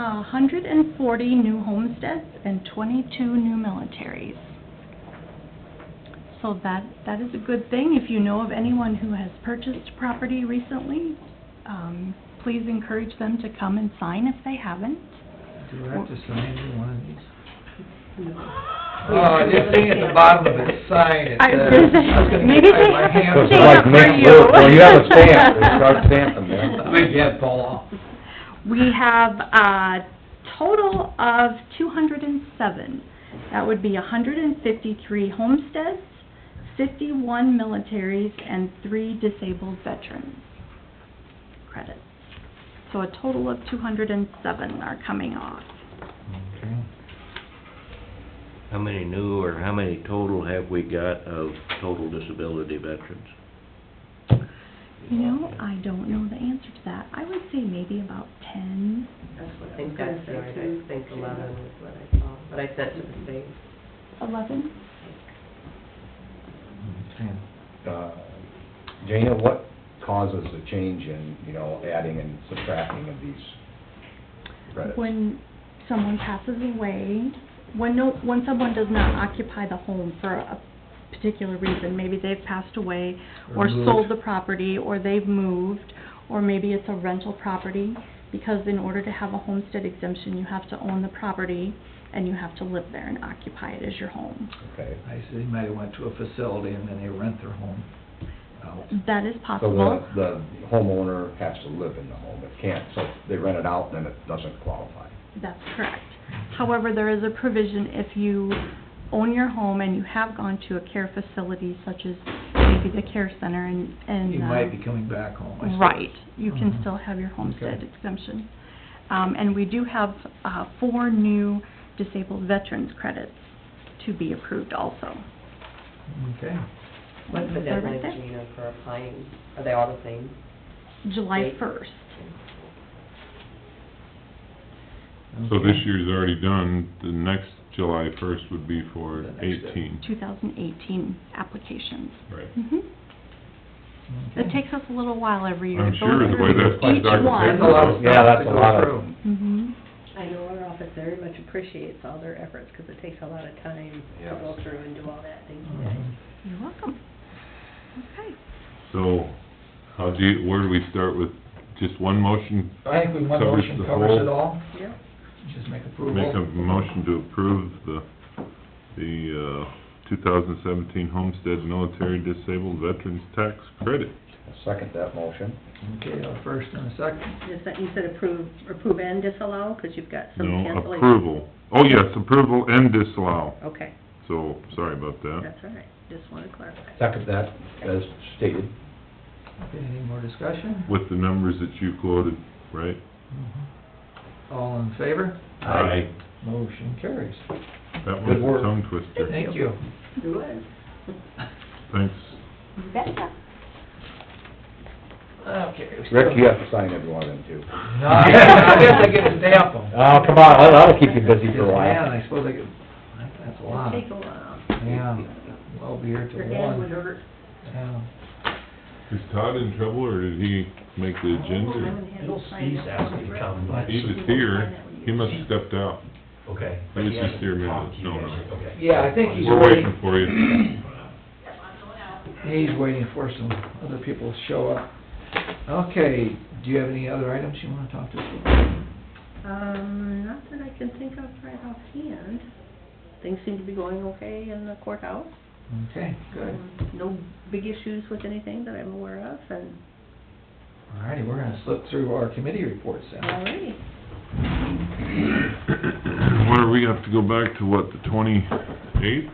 hundred and forty new homesteads and twenty-two new militaries. So that, that is a good thing. If you know of anyone who has purchased property recently, um, please encourage them to come and sign if they haven't. Do I have to sign any one of these? Oh, this thing at the bottom of it, sign it. I was uh, gonna say, I was gonna maybe get they my have a hand stamp up. Like for Nick you. Wolf, well, you have a stamp, they start stamping I them. think you have Paul off. We have a total of two hundred and seven. That would be hundred and fifty-three homesteads, fifty-one militaries, and three disabled veterans credits. So a total of two hundred and seven are coming off. Okay. How many new or how many total have we got of total disability veterans? You know, I don't know the answer to that. I would say maybe about ten. That's what I was think gonna that's say right, too. I think eleven was what I saw, but I sent to the state. Eleven. Okay. Uh, Dana, what causes the change in, you know, adding and subtracting of these credits? When someone passes away, when no, when someone does not occupy the home for a particular reason, maybe they've passed away, or Or moved. sold the property, or they've moved, or maybe it's a rental property, because in order to have a homestead exemption, you have to own the property, and you have to live there and occupy it as your home. Okay. I see, they might have went to a facility and then they rent their home out. That is So possible. the, the homeowner has to live in the home, it can't, so they rent it out, then it doesn't qualify. That's correct. However, there is a provision if you own your home and you have gone to a care facility such as maybe the care center and, and. You uh, might be coming back home, I suppose. Right, you can Mhm. still have your homestead Okay. exemption. Um, and we do have, uh, four new disabled veterans credits to be approved also. Okay. What's the They're deadline, right there. Gina, for applying? Are they all the same? July Date? first. So okay. this year's already done, the next July first would be The for next day. eighteen. 2018 applications. Right. Mhm. It takes us a little while every year I'm to sure go the way through that's like each Dr. one. There's a lot of Yeah, stuff that's to a lot go of- through. Mhm. I know our office very much appreciates all their efforts, because it takes a lot of time to Yes. go through and do all that, thank you guys. Mhm. You're welcome. Okay. So, how do you, where do we start with, just one motion? I think we, one Covers motion the covers it whole- all, Yeah. just make approval. Make a motion to approve the, the, uh, two thousand seventeen Homestead Military Disabled Veterans Tax Credit. I second that motion. Okay, a first and a second, Is that, you said approve, approve and disallow, because you've got some No, cancellation? approval. Oh, yes, approval and disallow, Okay, so, sorry about that. that's all right, just want to clarify. Second that, as stated. okay, any more discussion? With the numbers that you quoted, right? Mm-hmm. All in favor? Aye. Motion carries. That Good was work. a tongue twister. Thank you. Do it. Thanks. Okay. we still- Rick, you have to sign every one of them too. No, I guess I get to stamp them. Oh, come on, that'll- that'll keep you busy for a Man, while. I suppose I could, that's a lot. Take a while. Yeah, I'll be here till Your hand would one. hurt. Yeah. Is Todd in trouble, or did he make the agenda? or- He's asked me to come, but- He was here, he must have stepped out. Okay. He was just here a minute, no, no. Okay. Yeah, I think he's We're waiting, waiting for you. he's waiting for some other people to show up. Okay, do you have any other items you wanna talk to us about? Um, not that I can think of right offhand. Things seem to be going okay in the courthouse. Okay, good. Um, No big issues with anything that I'm aware of, and, All righty, we're gonna slip through our committee reports all then. righty. What, are we gonna have to go back to what, the twenty-eighth?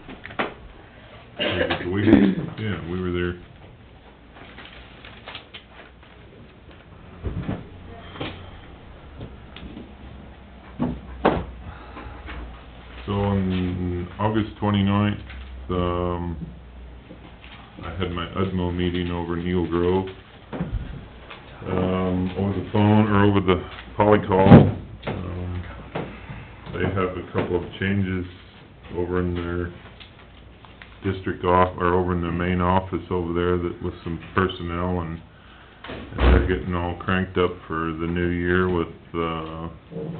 Yeah, we were there. So on August twenty-ninth, um, I had my E UDMO meeting over in Eagle Grove. Um, over the phone or over the polycall. Um, They have a couple of changes over in their district off, or over in their main office over there that, with some personnel and, and they're getting all cranked up for the new year with, uh,